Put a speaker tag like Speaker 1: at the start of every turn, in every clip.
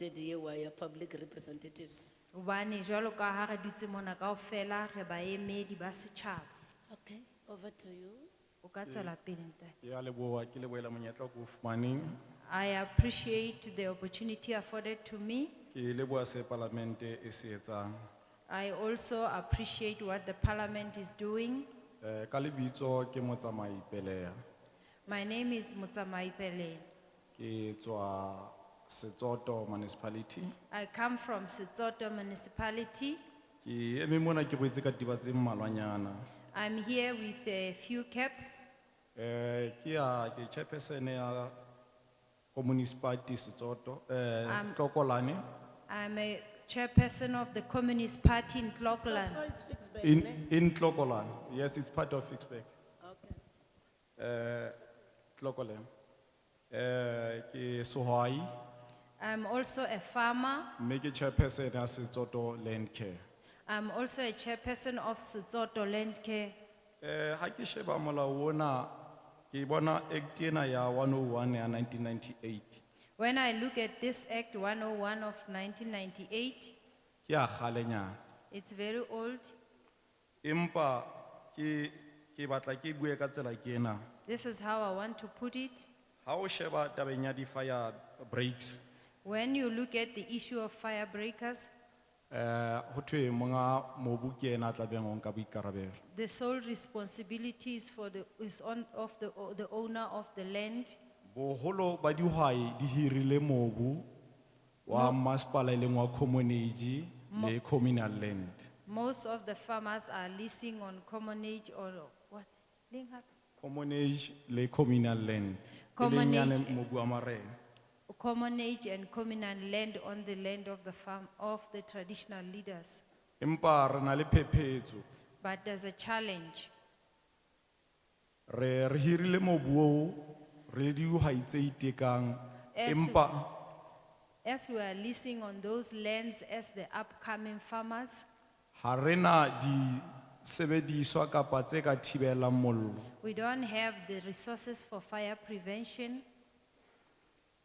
Speaker 1: represented here were your public representatives.
Speaker 2: Obani, jolo ka ha re dutse mona kaofela re baemedi ba setjhaba.
Speaker 1: Okay, over to you.
Speaker 2: O ka tswela pele ntate.
Speaker 3: Ke a leboha, ke lebohela monyetla oo ke o fumaneng.
Speaker 2: I appreciate the opportunity afforded to me.
Speaker 3: Ke leboha se palamente e se etsang.
Speaker 2: I also appreciate what the parliament is doing.
Speaker 3: Eh, ka lebitso ke motsamai Peleya.
Speaker 2: My name is Mutamai Pele.
Speaker 3: Ke tswa Setsoto municipality.
Speaker 2: I come from Setsoto municipality.
Speaker 3: Ke eme mona ke boetse ka diba tse mmalwanyana.
Speaker 2: I'm here with a few caps.
Speaker 3: Eh, ke ya, ke chairperson ya Communist Party Setsoto, eh, Tlokolane.
Speaker 2: I'm a chairperson of the Communist Party in Clocolan.
Speaker 1: So it's fixed by name.
Speaker 3: In, in Tlokolane, yes, it's part of Fitchburg.
Speaker 1: Okay.
Speaker 3: Eh, Tlokolane. Eh, ke Sohai.
Speaker 2: I'm also a farmer.
Speaker 3: mme ke chairperson ya setsoto land care
Speaker 2: I'm also a chairperson of Setsoto Land Care.
Speaker 3: um ga ke sheba molao ona ke bona act ena ya 101 ya 1998
Speaker 2: When I look at this Act 101 of 1998,
Speaker 3: ke ya galenyana
Speaker 2: it's very old.
Speaker 3: empa ke ke batla ke bue ka tsela ke ena
Speaker 2: This is how I want to put it.
Speaker 3: ga o sheba tabeng ya di-fire breaks
Speaker 2: When you look at the issue of fire breakers,
Speaker 3: um go thwe monga mobu ke ena a tlabeng o nka boikarabelo
Speaker 2: the sole responsibility is for the, is on, of the, o- the owner of the land.
Speaker 3: boholo ba dihwai di hirile mobu wa masepala e leng wa common age le communal land
Speaker 2: Most of the farmers are leasing on commonage or what? Leng hape?
Speaker 3: Commonage le communal land.
Speaker 2: Common
Speaker 3: E leng yane
Speaker 2: age.
Speaker 3: mobu wa marena.
Speaker 2: Commonage and communal land on the land of the farm, of the traditional leaders.
Speaker 3: Empa re na le phephetso.
Speaker 2: But there's a challenge.
Speaker 3: Re re hirile mobu oo re le dihwai tse itekang.
Speaker 2: Yes.
Speaker 3: Empa
Speaker 2: As we are leasing on those lands as the upcoming farmers,
Speaker 3: ha re na di sebediswa kapa tse ka thibelang mollo.
Speaker 2: we don't have the resources for fire prevention.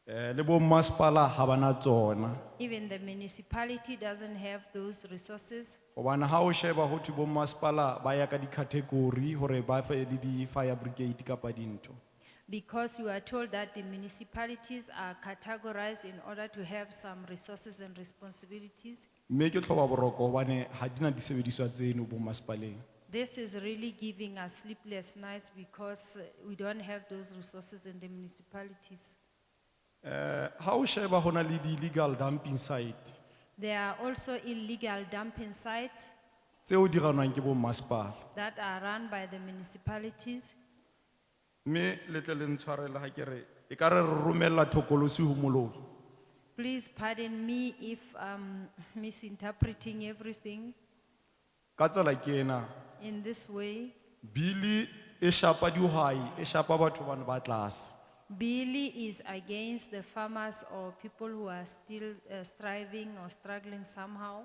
Speaker 3: Eh le bo masipala ha bana tsona.
Speaker 2: Even the municipality doesn't have those resources.
Speaker 3: Hobane ha o sheba ho thwe bo masipala ba ya ka di-category hore ba fe le di-fire brigade kapa dintho.
Speaker 2: Because we are told that the municipalities are categorized in order to have some resources and responsibilities.
Speaker 3: Mme ke tlhoba boroko hobane ha di na disebediswa tseno bo masipaleng.
Speaker 2: This is really giving us sleepless nights because uh, we don't have those resources in the municipalities.
Speaker 3: Eh, ha o sheba hona le di-legal dumping site,
Speaker 2: There are also illegal dumping sites
Speaker 3: tseo di ranwang ke bo masepala.
Speaker 2: that are run by the municipalities.
Speaker 3: Mme le tle le ntshwarele ha ke re, ekare re romella thokolosi ho moloi.
Speaker 2: Please pardon me if I'm misinterpreting everything
Speaker 3: Ka tsela ke ena,
Speaker 2: in this way.
Speaker 3: bili e shapa dihwai, e shapa batho bana ba tlase.
Speaker 2: Billy is against the farmers or people who are still uh, striving or struggling somehow.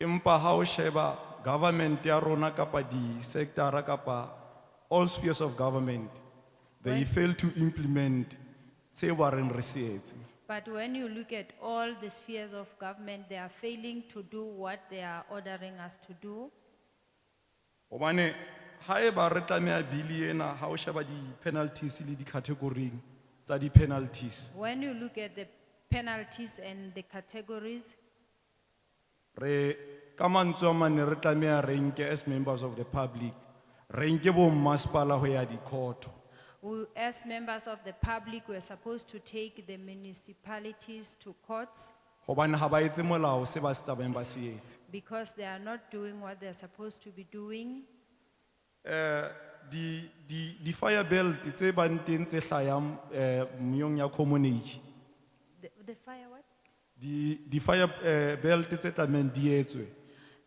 Speaker 3: Empa ha o sheba government ya rona kapa di sector kapa all spheres of government, they
Speaker 2: Right.
Speaker 3: fail to implement tse ba reng re se etse.
Speaker 2: But when you look at all the spheres of government, they are failing to do what they are ordering us to do.
Speaker 3: Obane, haeba re tlameha bili ena, ha o sheba di penalties le di category tsa di penalties.
Speaker 2: When you look at the penalties and the categories,
Speaker 3: Re, kamanzo mane re tlameha re nke as members of the public, re nke bo masipala ho ya di court.
Speaker 2: we, as members of the public, we're supposed to take the municipalities to courts
Speaker 3: Obane haba etse molao se ba se tsamayang ba se etse.
Speaker 2: because they are not doing what they're supposed to be doing.
Speaker 3: Eh, di, di, di fire belt tse bang teng tse hlayang eh, meyong ya common age.
Speaker 2: The, the fire what?
Speaker 3: Di, di fire eh, belt tse tlameha di etswe.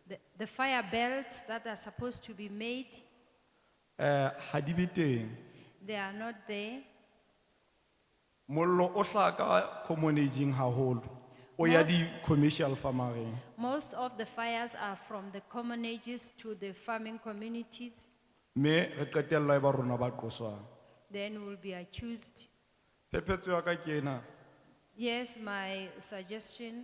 Speaker 2: The, the fire belts that are supposed to be made,
Speaker 3: Eh, ha di be teng.
Speaker 2: they are not there.
Speaker 3: mollo o hlaka common aging haholo o ya
Speaker 2: Most-
Speaker 3: di-commercial farmereng
Speaker 2: Most of the fires are from the common ages to the farming communities.
Speaker 3: mme re qetella e ba rona ba qoswang
Speaker 2: Then we'll be accused.
Speaker 3: phephetso ya ka ke ena
Speaker 2: Yes, my suggestion